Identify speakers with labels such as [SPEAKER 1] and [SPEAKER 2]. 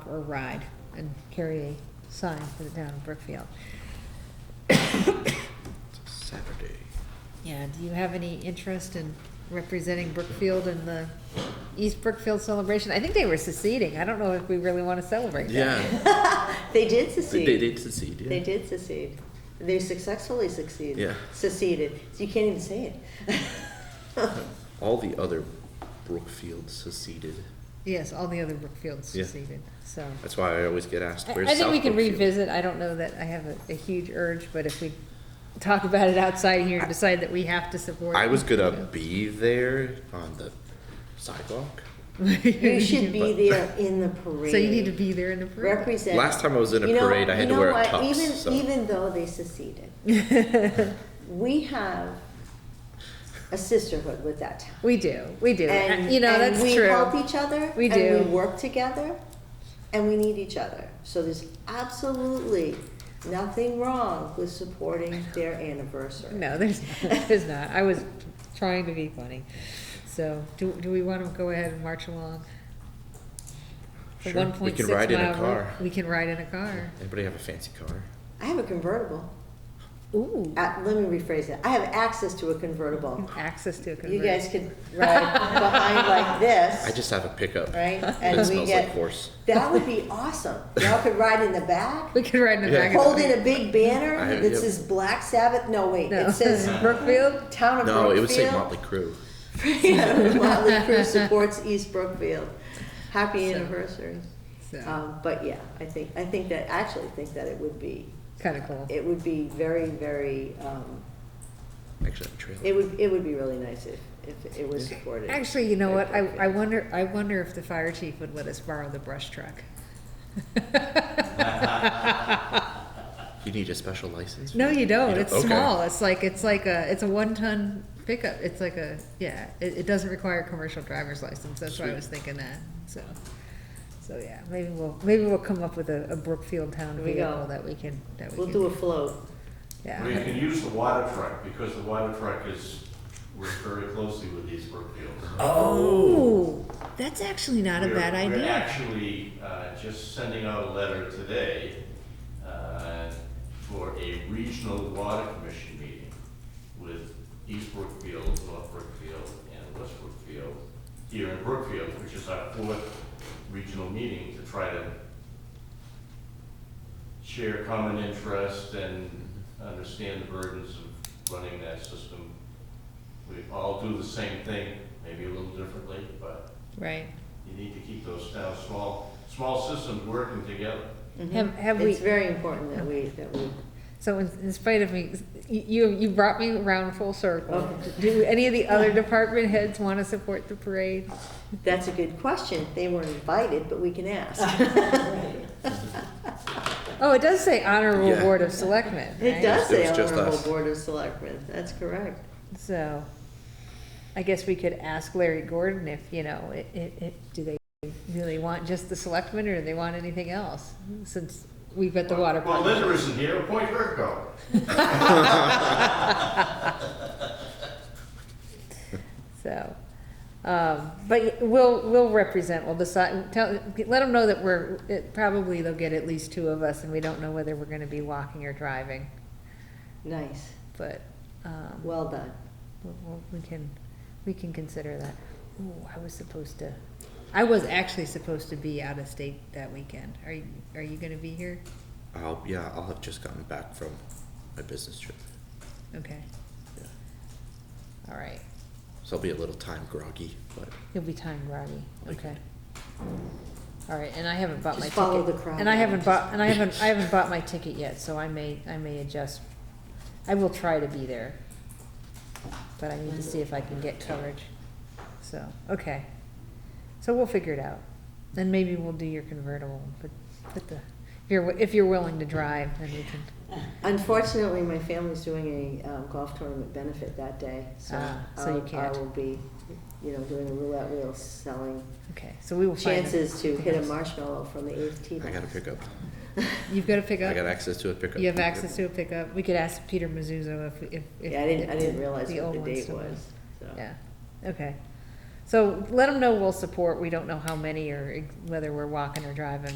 [SPEAKER 1] or ride and carry a sign for the town of Brookfield.
[SPEAKER 2] Saturday.
[SPEAKER 1] Yeah, do you have any interest in representing Brookfield in the East Brookfield celebration? I think they were seceding. I don't know if we really want to celebrate that.
[SPEAKER 2] Yeah,
[SPEAKER 3] They did
[SPEAKER 2] they
[SPEAKER 3] secede.
[SPEAKER 2] they did succeed, yeah.
[SPEAKER 3] They did secede. They successfully succeeded.
[SPEAKER 2] Yeah.
[SPEAKER 3] Seceded. So you can't even say it.
[SPEAKER 2] All the other Brookfield seceded.
[SPEAKER 1] Yes, all the other Brookfields
[SPEAKER 2] Yeah.
[SPEAKER 1] seceded, so.
[SPEAKER 2] That's why I always get asked,
[SPEAKER 1] I
[SPEAKER 2] where's
[SPEAKER 1] I think we
[SPEAKER 2] South
[SPEAKER 1] can
[SPEAKER 2] Brookfield?"
[SPEAKER 1] revisit, I don't know that I have a, a huge urge, but if we talk about it outside here and decide that we have to support.
[SPEAKER 2] I was
[SPEAKER 1] good
[SPEAKER 2] gonna be there on the sidewalk.
[SPEAKER 3] You should be there in the parade.
[SPEAKER 1] So you need to be there in the parade.
[SPEAKER 3] Represent.
[SPEAKER 2] Last time I was in a
[SPEAKER 3] You know-
[SPEAKER 2] parade, I had
[SPEAKER 3] you
[SPEAKER 2] to
[SPEAKER 3] know
[SPEAKER 2] wear a
[SPEAKER 3] what?
[SPEAKER 2] tux,
[SPEAKER 3] Even-
[SPEAKER 2] so-
[SPEAKER 3] Even though they seceded, we have a sisterhood with that town.
[SPEAKER 1] We do, we do,
[SPEAKER 3] And,
[SPEAKER 1] you know,
[SPEAKER 3] and
[SPEAKER 1] that's
[SPEAKER 3] we help
[SPEAKER 1] true.
[SPEAKER 3] each other.
[SPEAKER 1] We
[SPEAKER 3] and
[SPEAKER 1] do.
[SPEAKER 3] We work together, and we need each other. So there's absolutely nothing wrong with supporting their anniversary.
[SPEAKER 1] No, there's, there's not, I was trying to be funny. So, do, do we wanna go ahead and march along? The
[SPEAKER 2] Sure, we can
[SPEAKER 1] 1.6
[SPEAKER 2] ride in a
[SPEAKER 1] mile route-
[SPEAKER 2] car.
[SPEAKER 1] We can ride in a car.
[SPEAKER 2] Anybody have a fancy car?
[SPEAKER 3] I have a convertible.
[SPEAKER 1] Ooh,
[SPEAKER 3] Uh, let me rephrase that. I have access to a convertible.
[SPEAKER 1] access to a convertible.
[SPEAKER 3] You guys could ride behind like this.
[SPEAKER 2] I just have a pickup.
[SPEAKER 3] right?
[SPEAKER 2] That
[SPEAKER 3] And we
[SPEAKER 2] smells
[SPEAKER 3] get-
[SPEAKER 2] like horse.
[SPEAKER 3] That would be awesome. Y'all could ride in the back,
[SPEAKER 1] We could ride in the
[SPEAKER 2] Yeah.
[SPEAKER 1] back. of the-
[SPEAKER 3] holding a big
[SPEAKER 2] I
[SPEAKER 3] banner
[SPEAKER 2] have-
[SPEAKER 3] that
[SPEAKER 2] yep.
[SPEAKER 3] says Black Sabbath. No, wait,
[SPEAKER 1] No.
[SPEAKER 3] it says
[SPEAKER 1] Brookfield?
[SPEAKER 3] Town of Brookfield.
[SPEAKER 2] No, it would say Motley Crue.
[SPEAKER 3] Yeah, Motley Crue supports East Brookfield. Happy anniversary.
[SPEAKER 1] So,
[SPEAKER 3] Um, but yeah, I think, I think that, I actually think that it would be,
[SPEAKER 1] kind of cool.
[SPEAKER 3] it would be very, very, um,
[SPEAKER 2] Actually, I'm trailing.
[SPEAKER 3] it would, it would be really nice if, if it was supported.
[SPEAKER 1] Actually, you know what? I, I wonder, I wonder if the fire chief would let us borrow the brush truck.
[SPEAKER 2] You need a special license? for
[SPEAKER 1] No,
[SPEAKER 2] that?
[SPEAKER 1] you don't. It's
[SPEAKER 2] okay.
[SPEAKER 1] small. It's like, it's like a, it's a one-ton pickup. It's like a, yeah, it, it doesn't require a commercial driver's license. That's why I
[SPEAKER 2] Sweet.
[SPEAKER 1] was thinking that, so. So, yeah, maybe we'll, maybe we'll come up with a, a Brookfield Town
[SPEAKER 3] There we go.
[SPEAKER 1] vehicle that we can, that we
[SPEAKER 3] We'll
[SPEAKER 1] can-
[SPEAKER 3] do a float.
[SPEAKER 4] We
[SPEAKER 1] Yeah,
[SPEAKER 4] can use the water truck, because the water truck is, works very closely with these Brookfields.
[SPEAKER 1] Oh, that's actually not a
[SPEAKER 4] We're-
[SPEAKER 1] bad
[SPEAKER 4] We're
[SPEAKER 1] idea.
[SPEAKER 4] actually uh, just sending out a letter today uh, for a regional water commission meeting with East Brookfield, North Brookfield, and West Brookfield here in Brookfield, which is our fourth regional meeting to try to share common interest and understand the burdens of running that system. We all do the same thing, maybe a little differently, but
[SPEAKER 1] Right.
[SPEAKER 4] you need to keep those now small, small systems working together.
[SPEAKER 1] Have, have we?
[SPEAKER 3] Mm-hmm. It's very important that we, that we,
[SPEAKER 1] So in, in spite of me, you, you brought me around full circle.
[SPEAKER 3] Okay.
[SPEAKER 1] Do any of the other department heads want to support the parade?
[SPEAKER 3] that's a good question. They weren't invited, but we can ask.
[SPEAKER 1] Oh, it does say honorable
[SPEAKER 2] Yeah.
[SPEAKER 1] board of selectmen,
[SPEAKER 3] It
[SPEAKER 1] right?
[SPEAKER 3] does
[SPEAKER 2] It
[SPEAKER 3] say
[SPEAKER 2] was just
[SPEAKER 3] honorable
[SPEAKER 2] us.
[SPEAKER 3] board of selectmen, that's correct.
[SPEAKER 1] So I guess we could ask Larry Gordon if, you know, it, it, it- do they really want just the selectmen or do they want anything else? Since we've got the water.
[SPEAKER 4] Well,
[SPEAKER 1] pump.
[SPEAKER 4] Linda isn't here, appoint her go.
[SPEAKER 1] So, um, but we'll, we'll represent, we'll decide, tell, let them know that we're, it, probably they'll get at least two of us and we don't know whether we're gonna be walking or driving,
[SPEAKER 3] Nice,
[SPEAKER 1] but, um,
[SPEAKER 3] well done.
[SPEAKER 1] we'll- we'll- we can, we can consider that. Ooh, I was supposed to, I was actually supposed to be out of state that weekend. Are you, are you gonna be here?
[SPEAKER 2] I'll, yeah, I'll have just gotten back from my business trip.
[SPEAKER 1] Okay,
[SPEAKER 2] Yeah.
[SPEAKER 1] all right.
[SPEAKER 2] So I'll be a little time groggy, but
[SPEAKER 1] You'll be time groggy,
[SPEAKER 2] Like-
[SPEAKER 1] okay. All right, and I haven't bought my
[SPEAKER 3] Just
[SPEAKER 1] ticket.
[SPEAKER 3] follow the crowd,
[SPEAKER 1] And I
[SPEAKER 3] yeah,
[SPEAKER 1] haven't
[SPEAKER 3] just-
[SPEAKER 1] bought, and I haven't, I haven't bought my ticket yet, so I may, I may adjust. I will try to be there, but I need to see if I can get coverage, so, okay. So we'll figure it out, and maybe we'll do your convertible, but, but the, if you're, wi- if you're willing to drive, then we can.
[SPEAKER 3] Unfortunately, my family's doing a um, golf tournament benefit that day, so
[SPEAKER 1] Ah, so you
[SPEAKER 3] I'll- I
[SPEAKER 1] can't.
[SPEAKER 3] will be, you know, doing a roulette wheel, selling
[SPEAKER 1] Okay, so we will find. a-
[SPEAKER 3] chances to hit a marshmallow from the eighth tee
[SPEAKER 2] I
[SPEAKER 3] box.
[SPEAKER 2] got a pickup.
[SPEAKER 1] You've got to pick up.
[SPEAKER 2] I got access to a pickup.
[SPEAKER 1] You have access to a pickup. We could ask Peter Mizzuzo if, if. if-
[SPEAKER 3] Yeah, I didn't, I
[SPEAKER 1] if
[SPEAKER 3] didn't realize what
[SPEAKER 1] old
[SPEAKER 3] the
[SPEAKER 1] ones
[SPEAKER 3] date
[SPEAKER 1] still
[SPEAKER 3] was,
[SPEAKER 1] went.
[SPEAKER 3] so.
[SPEAKER 1] Yeah, okay. So let them know we'll support. We don't know how many or whether we're walking or driving.